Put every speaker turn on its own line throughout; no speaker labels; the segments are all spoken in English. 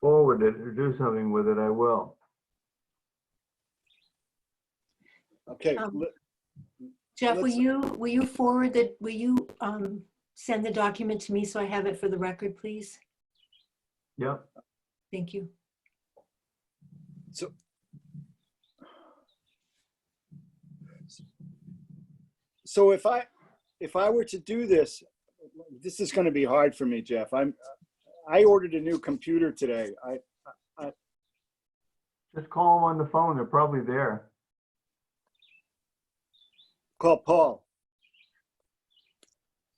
forward it or do something with it, I will.
Okay,
Um,
li-
Jeff, will
Let's-
you, will you forward the, will you um, send the document to me so I have it for the record, please?
Yep.
Thank you.
so if I, if I were to do this, this is gonna be hard for me, Jeff. I'm, I ordered a new computer today. I,
Just call them on the phone. They're probably there.
call Paul.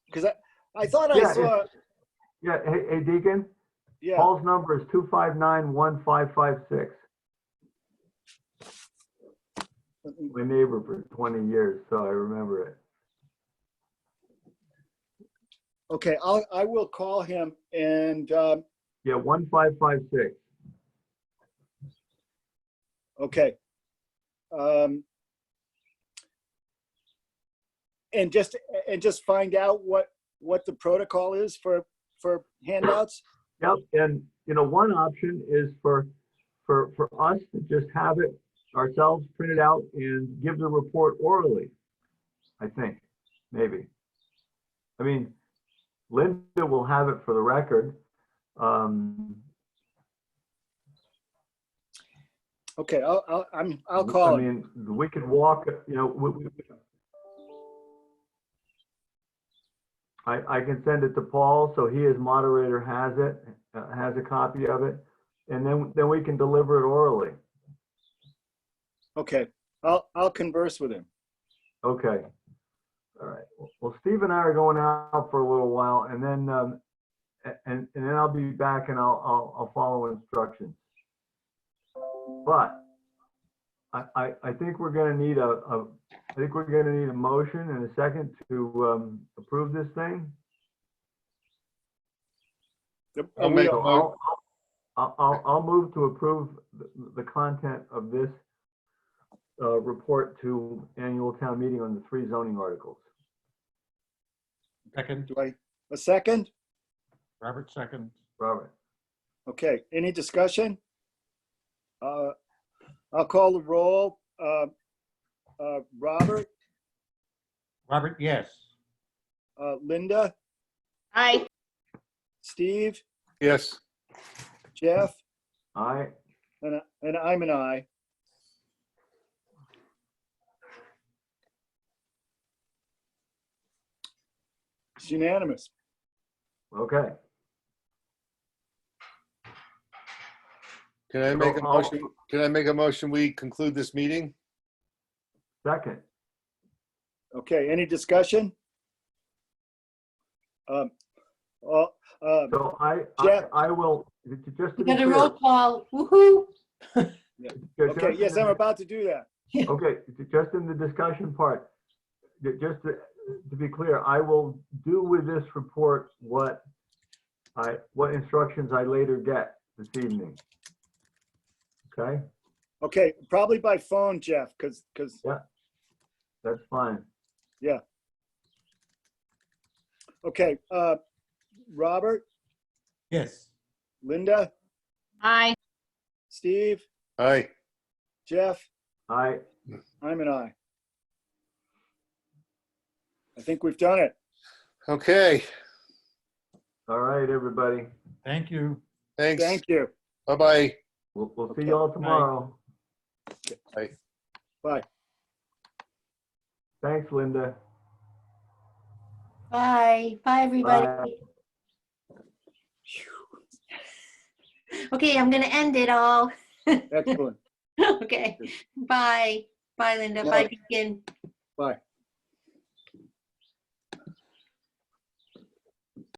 Because I, I thought
Yeah,
I saw,
Yeah, hey, hey Deacon,
yeah,
Paul's number is two five nine one five five six. My neighbor for twenty years, so I remember it.
okay, I'll, I will call him and, um,
Yeah, one five five six.
Okay. Um, and just and just find out what what the protocol is for for handouts.
Yep, and you know, one option is for, for, for us to just have it ourselves printed out and give the report orally. I think, maybe. I mean, Linda will have it for the record. Um,
Okay, I'll, I'll I'm I'll
I
call. him.
mean, we could walk, you know, we, we. I, I can send it to Paul, so he as moderator has it, uh, has a copy of it, and then, then we can deliver it orally.
Okay, I'll I'll converse with him.
Okay. All right. Well, Steve and I are going out for a little while and then, um, a- and, and then I'll be back and I'll, I'll, I'll follow instructions. But I, I, I think we're gonna need a, a, I think we're gonna need a motion and a second to, um, approve this thing.
Oh,
I'll make-
So
a mo-
I'll, I'll, I'll, I'll move to approve the, the content of this, uh, report to annual town meeting on the three zoning articles.
Second,
Do I a second?
Robert second.
Robert?
Okay. Any discussion? Uh, I'll call the roll. Uh, uh, Robert,
Robert, yes.
uh, Linda,
Aye.
Steve,
Yes,
Jeff,
Aye.
and I- and I'm an I. It's unanimous.
Okay.
can I make a
I'll-
motion, can I make a motion, we conclude this meeting?
Second.
Okay, any discussion? Um, Well, um,
So I, I,
Jeff.
I will, j- j- just to be
You got a
clear.
roll call. Woohoo!
ju-
okay,
just-
yes, I'm about to do that.
Okay, j- just in the discussion part, ju- just to to be clear, I will do with this report what I, what instructions I later get this evening. Okay,
Okay, probably by phone, Jeff, because, because,
that's fine.
okay, uh, Robert,
Yes.
Linda,
Aye.
Steve,
Aye,
Jeff,
I,
I'm an I. I think we've done it.
okay,
all right, everybody.
Thank you.
thanks,
Thank you.
bye-bye.
We'll, we'll see
Okay.
y'all tomorrow.
Bye.
Thanks, Linda.
Bye. Bye, everybody. Okay, I'm gonna end it all.
Excellent.
Okay. Bye. Bye, Linda. Bye, Deacon.
Bye.